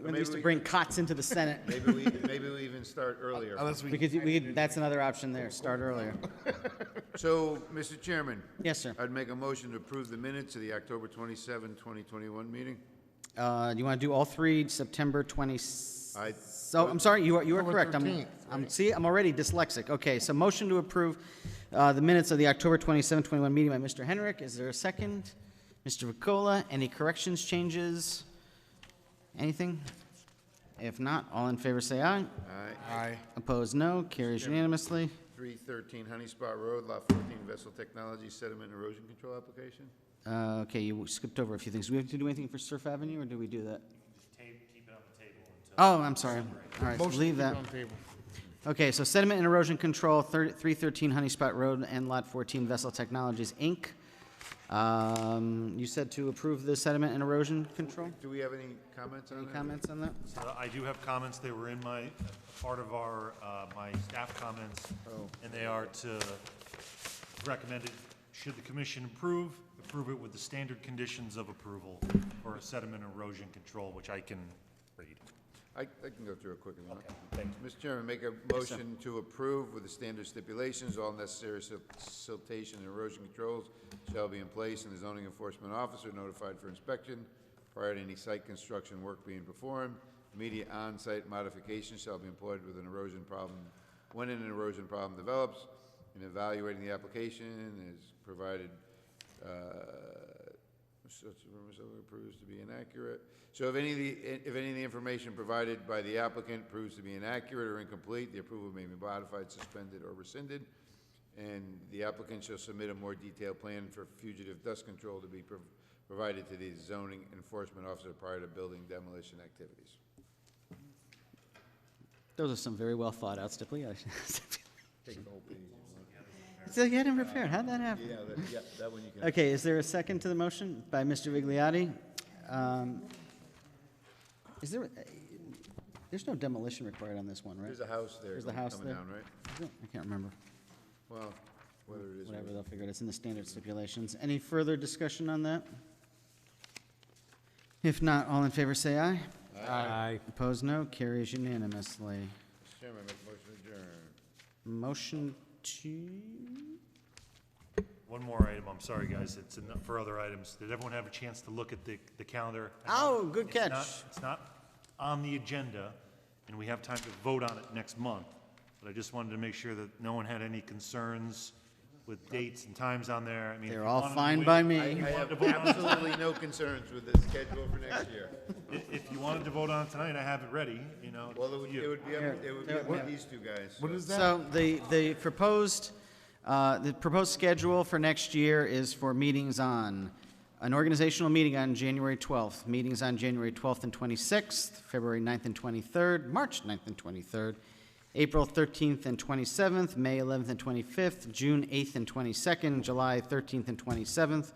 When they used to bring cots into the Senate, Maybe we, maybe we even start earlier. Unless we we, could, we could, that's another option there, start earlier. So, Mr. Chairman? Yes, sir. I'd make a motion to approve the minutes of the October 27, 2021 meeting. Uh, you want to do all three, September 20, I- so, I'm sorry, you are, you are October correct. I'm, 13th, I'm, see, I'm already dyslexic. Okay, so motion to approve, uh, the minutes of the October 27, 21 meeting by Mr. Henrik. Is there a second? Mr. Ricola, any corrections, changes? Anything? If not, all in favor say aye. Aye. aye, Opposed, no. Carries unanimously. 313 Honey Spot Road, Lot 14, Vessel Technology Sediment Erosion Control Application. Uh, okay, you skipped over a few things. Do we have to do anything for Surf Avenue, or do we do that? Oh, I'm sorry. All right, motion leave to that. keep on table. Okay, so sediment and erosion control, thir- 313 Honey Spot Road and Lot 14 Vessel Technologies, Inc. Um, You said to approve the sediment and erosion control? Do we have any comments on Any that? comments on that? Uh, I do have comments, they were in my, part of our, uh, my staff comments, and they are to recommend it, should the commission approve, approve it with the standard conditions of approval for a sediment erosion control, which I can read. I, I can go through it quick if you want. Mr. Chairman, make a motion to approve with the standard stipulations, all necessary sil- siltation and erosion controls shall be in place, and the zoning enforcement officer notified for inspection prior to any site construction work being performed. Immediate on-site modifications shall be employed with an erosion problem, when an erosion problem develops. In evaluating the application, is provided uh, such rumors proves to be inaccurate. So if any of the, if any of the information provided by the applicant proves to be inaccurate or incomplete, the approval may be modified, suspended, or rescinded. And the applicant shall submit a more detailed plan for fugitive dust control to be prov- provided to the zoning enforcement officer prior to building demolition activities. Those are some very well thought out stipulations. So you had him prepared, how'd that happen? yeah, that one you can. Okay, is there a second to the motion by Mr. Vigliotti? Um, Is there, there's no demolition required on this one, right? There's a house there There's the house coming there. down, right? Is there? I can't remember. Well, whether it is. or- Whatever, they'll figure it, it's in the standard stipulations. Any further discussion on that? If not, all in favor say aye. Aye. Opposed, no. Carries unanimously. Mr. Chairman, make a motion to adjourn. Motion to, One more item, I'm sorry, guys, it's enough for other items. Did everyone have a chance to look at the, the calendar? Oh, good It's not- catch. It's not on the agenda, and we have time to vote on it next month, but I just wanted to make sure that no one had any concerns with dates and times on there. I mean, if they're you all wanted to fine wait- by I me. I wanted to have vote on it- absolutely no concerns with the schedule for next year. If if you wanted to vote on it tonight, I have it ready, you know. Well, it would, it would be, up- it would be up Yeah. to these two guys. What so- is that? So the, the proposed, uh, the proposed schedule for next year is for meetings on, an organizational meeting on January 12th, meetings on January 12th and 26th, February 9th and 23rd, March 9th and 23rd, April 13th and 27th, May 11th and 25th, June 8th and 22nd, July 13th and 27th,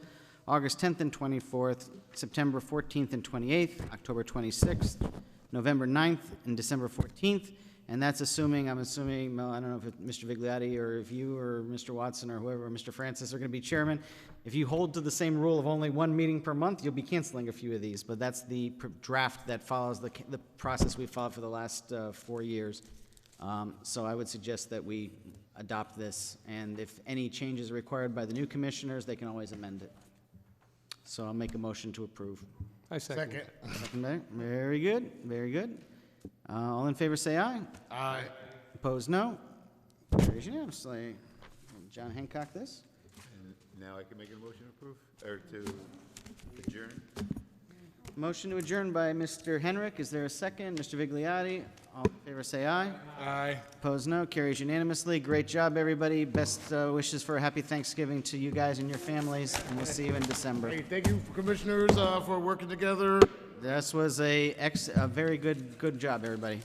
August 10th and 24th, September 14th and 28th, October 26th, November 9th, and December 14th. And that's assuming, I'm assuming, Mel, I don't know if it- Mr. Vigliotti, or if you, or Mr. Watson, or whoever, or Mr. Francis are going to be chairman. If you hold to the same rule of only one meeting per month, you'll be canceling a few of these. But that's the pr- draft that follows the, ca- the process we followed for the last uh, four years. Um, So I would suggest that we adopt this, and if any changes are required by the new commissioners, they can always amend it. So I'll make a motion to approve. I second. Second, Second there. Very good, very good. Uh, All in favor, say aye. aye. Opposed, no. Carries unanimously. John Hancock, this? Now I can make a motion to approve, or to adjourn? Motion to adjourn by Mr. Henrik. Is there a second? Mr. Vigliotti? All in favor, say aye. Aye. Opposed, no. Carries unanimously. Great job, everybody. Best uh, wishes for a happy Thanksgiving to you guys and your families, and we'll see you in December. Hey, thank you, commissioners, uh, for working together. This was a ex, a very good, good job, everybody.